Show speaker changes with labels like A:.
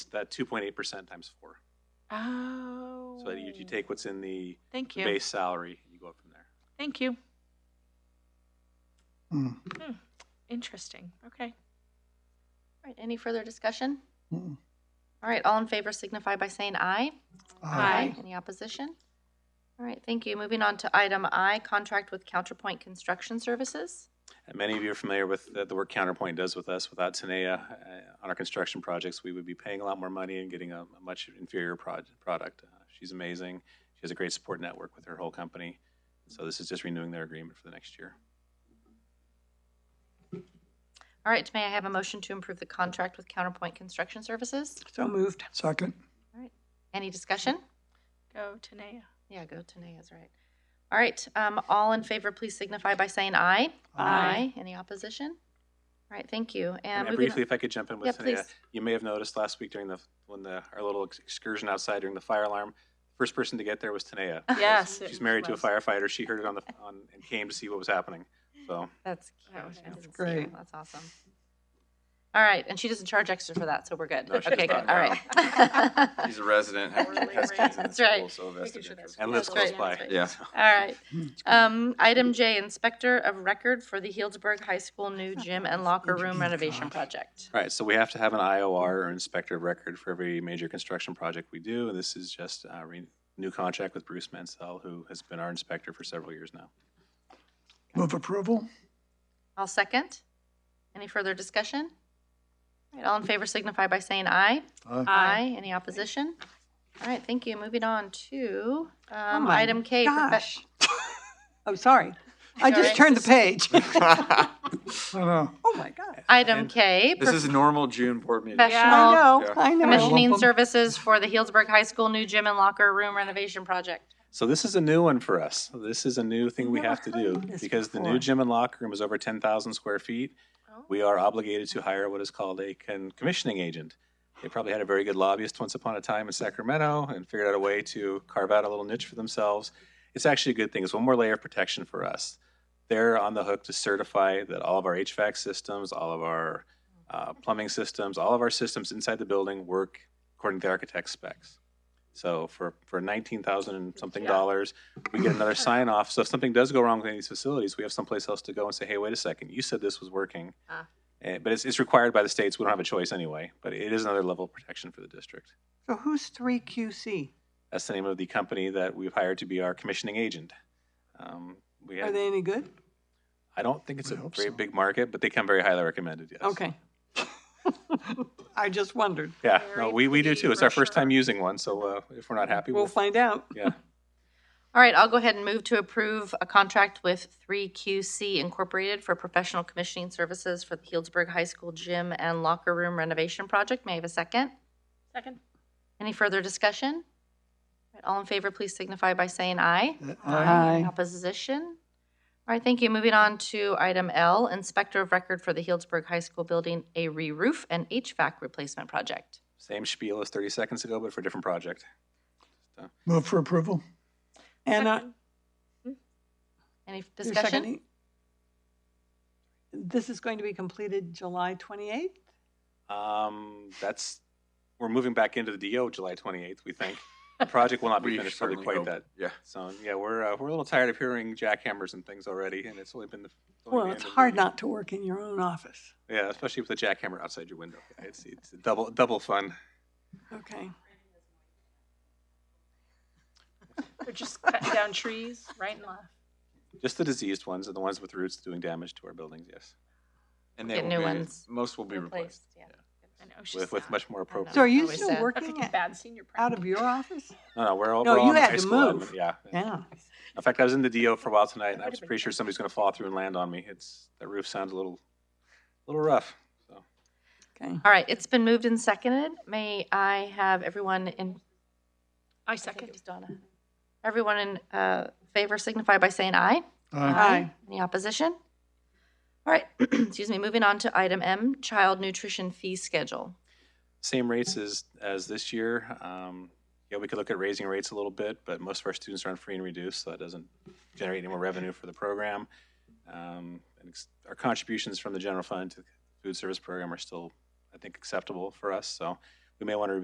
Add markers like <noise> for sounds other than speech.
A: that 2.8% times four.
B: Oh.
A: So that you, you take what's in the
B: Thank
A: the
B: you.
A: base salary and you go up from there.
B: Thank you.
C: Mm,
B: Interesting. Okay.
D: All right, any further discussion?
C: mm.
D: All right, all in favor signify by saying aye.
B: Aye.
D: Any opposition? All right, thank you. Moving on to item I, contract with Counterpoint Construction Services.
A: And many of you are familiar with the, the work Counterpoint does with us. Without Tanea uh, on our construction projects, we would be paying a lot more money and getting a, a much inferior prod, product. Uh, she's amazing. She has a great support network with her whole company. So this is just renewing their agreement for the next year.
D: All right, may I have a motion to improve the contract with Counterpoint Construction Services?
B: So moved.
C: Second,
D: All right, any discussion?
B: Go Tanea.
D: Yeah, go Tanea's right. All right, um, all in favor, please signify by saying aye.
B: Aye.
D: Any opposition? All right, thank you.
A: And,
D: moving
A: briefly,
D: on-
A: if I could jump in
D: Yeah,
A: with Tanea,
D: please.
A: you may have noticed last week during the when the our little ex- excursion outside during the fire alarm, first person to get there was Tanea.
B: Yes.
A: She's married to a
B: was.
A: firefighter. She heard it on the on and came to see what was happening. So
D: That's
B: That was
D: cute. I
B: nice.
D: didn't see
C: Great.
D: that. That's awesome. All right, and she doesn't charge extra for that, so we're good.
E: No, she
D: Okay,
E: does
D: good,
E: not,
D: all
E: no.
D: right. <laughs>
E: He's a resident, has
B: Really
E: has kids in the
D: That's right.
E: school, so vested
B: sure
E: interest.
A: and lives
D: That's
A: close
D: right.
A: by.
D: That's right.
E: Yeah.
D: All right. Um, Item J, Inspector of Record for the Healdsburg High School New Gym and Locker Room Renovation Project.
A: All Right, so we have to have an IOR or inspector of record for every major construction project we do, and this is just a re- new contract with Bruce Mansell, who has been our inspector for several years now.
C: move approval?
D: I'll second. Any further discussion? All right, all in favor signify by saying aye.
C: Aye.
D: Aye. Any opposition? All right, thank you. Moving on to um,
F: my
D: item K. profe-
F: Gosh. Oh, sorry. I
D: Sorry.
F: just turned the <laughs> page.
C: No, no,
F: Oh, my God. Oh,
D: Item K,
E: This is normal June board meeting.
D: Professional-
B: Yeah.
F: I know,
E: Yeah.
F: I know.
D: commissioning
C: Lump 'em.
D: services for the Healdsburg High School new gym and locker room renovation project.
A: So this is a new one for us. This is a new thing we
F: Never
A: have to
F: heard
A: do
F: of this
A: because the new
F: before. Oh.
A: gym and locker room is over 10,000 square feet. We are obligated to hire what is called a con- commissioning agent. They probably had a very good lobbyist once upon a time in Sacramento and figured out a way to carve out a little niche for themselves. It's actually a good thing. It's one more layer of protection for us. They're on the hook to certify that all of our HVAC systems, all of our uh, plumbing systems, all of our systems inside the building work according to the architect's specs. So for, for nineteen thousand and something dollars, we get
F: <laughs>
A: another sign off. So if something does go wrong with any of these facilities, we have someplace else to go and say, hey, wait a second, you said this was working.
D: Ah.
A: Eh, But it's, it's required by the states. We don't have a choice anyway, but it is another level of protection for the district.
F: So who's 3QC?
A: That's the name of the company that we've hired to be our commissioning agent. Um, We
F: Are
A: have,
F: they any good?
A: I don't think it's a
C: I hope
A: very
C: so.
A: big market, but they come very highly recommended, yes.
F: Okay. <laughs> I just wondered.
A: Yeah, no,
B: Very
A: we, we do
B: pretty
A: too. It's our first
B: brochure.
A: time using one, so uh, if we're not happy,
F: We'll
A: we'll,
F: find out.
A: yeah.
D: All right, I'll go ahead and move to approve a contract with 3QC Incorporated for professional commissioning services for the Healdsburg High School gym and locker room renovation project. May I have a second?
B: Second.
D: Any further discussion? All in favor, please signify by saying aye.
C: Uh, Aye.
D: Any Opposition? All right, thank you. Moving on to item L, Inspector of Record for the Healdsburg High School Building, a re-roof and HVAC replacement project.
A: Same spiel as thirty seconds ago, but for a different project.
C: Move for approval?
F: Anna?
D: Any
F: you're
D: discussion?
F: seconding? This is going to be completed July 28th?
A: Um, that's, we're moving back into the DO July 28th, we think. The project will not be
E: We
A: finished probably
E: certainly
A: quite
E: hope.
A: that
E: Yeah.
A: soon. Yeah, we're, uh, we're a little tired of hearing jackhammers and things already, and it's only been the. only
F: Well,
A: the
F: it's
A: end of the
F: hard
A: week.
F: not to work in your own office.
A: Yeah, especially with the jackhammer outside your window. It's, it's double, double fun.
F: Okay.
B: They're just cutting down trees right and left.
A: Just the diseased ones and the ones with roots doing damage to our buildings, yes.
E: And they
D: Get
E: will
D: new
E: be-
D: ones.
E: Most will be
D: Replaced,
E: replaced.
D: yeah.
B: I know she's
A: With, with
B: sad.
A: much more
D: know.
A: appropriate.
F: So are you
D: Always
F: still
D: sad.
B: That's like
F: working
B: a
F: at-
B: bad senior.
F: out of
B: practice.
F: your office?
A: No, no, we're all,
F: No,
A: we're all
F: you
A: in the
F: had
A: high
F: to
A: school. admin,
F: move.
A: Yeah.
F: Yeah.
A: In fact, I was in the DO for a while tonight, and I was pretty sure somebody's gonna fall through and land on me. It's, that roof sounds a little, a little rough, so.
F: Okay.
D: All right, it's been moved and seconded. May I have everyone in,
B: I
D: I think it
B: second.
D: was Donna. Everyone in uh, favor signify by saying aye.
C: Aye.
F: Aye.
D: Any opposition? All right, <clears throat> excuse me, moving on to item M, Child Nutrition Fee Schedule.
A: same rates as, as this year. Um, yeah, we could look at raising rates a little bit, but most of our students are on free and reduced, so that doesn't generate any more revenue for the program. Um, and ex- our contributions from the general fund to the food service program are still, I think, acceptable for us, so we may want to